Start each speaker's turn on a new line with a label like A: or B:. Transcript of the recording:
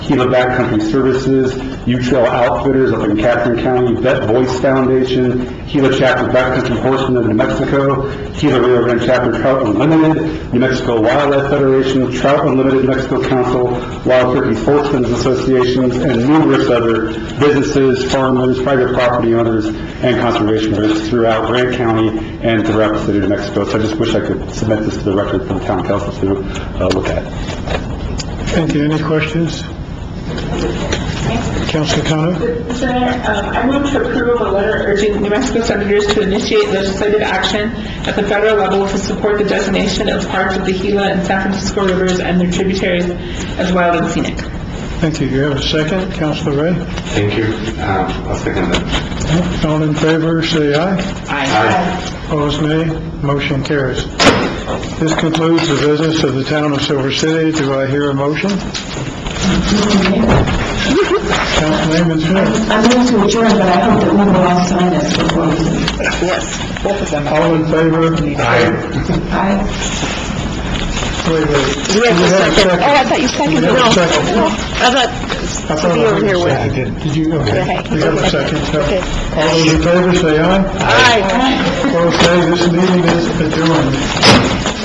A: Gila Backcountry Services, U Trail Outfitters up in Catherine County, Vet Voice Foundation, Gila Chapter Backcountry Horsemen of New Mexico, Gila Rio Grande Chapter Trout Unlimited, New Mexico Wildlife Federation, Trout Unlimited Mexico Council, Wild Turkey Sportsmen's Associations, and numerous other businesses, farmers, private property owners, and conservation groups throughout Grant County and throughout the city of New Mexico. So I just wish I could submit this to the record for the town council to uh, look at.
B: Thank you. Any questions? Councilor Kano?
C: Mr. Mayor, um, I move to approve a letter urging New Mexico senators to initiate legislative action at the federal level to support the designation of parts of the Gila and San Francisco rivers and their tributaries as wild and scenic.
B: Thank you. You have a second, Councilor Ray?
D: Thank you. Um, I'll second that.
B: All in favor, say aye.
D: Aye.
B: Opposed, nay. Motion carries. This concludes the business of the town of Silver City. Do I hear a motion? Councilman Smith?
E: I'm going to adjourn, but I hope that we will all sign this before we leave.
B: All in favor?
D: Aye.
E: Aye.
B: Wait, wait. Do we have a
F: Oh, I thought you seconded.
B: Do we have a
F: No.
B: second?
F: No, I
B: I thought I
F: You were
B: heard
F: here
B: you
F: with-
B: second. Did Did you? Okay.
F: Okay.
B: We have a second.
F: Okay.
B: All those in favor, say aye.
F: thought, aye.
B: Opposed, nay. This meeting is adjourned.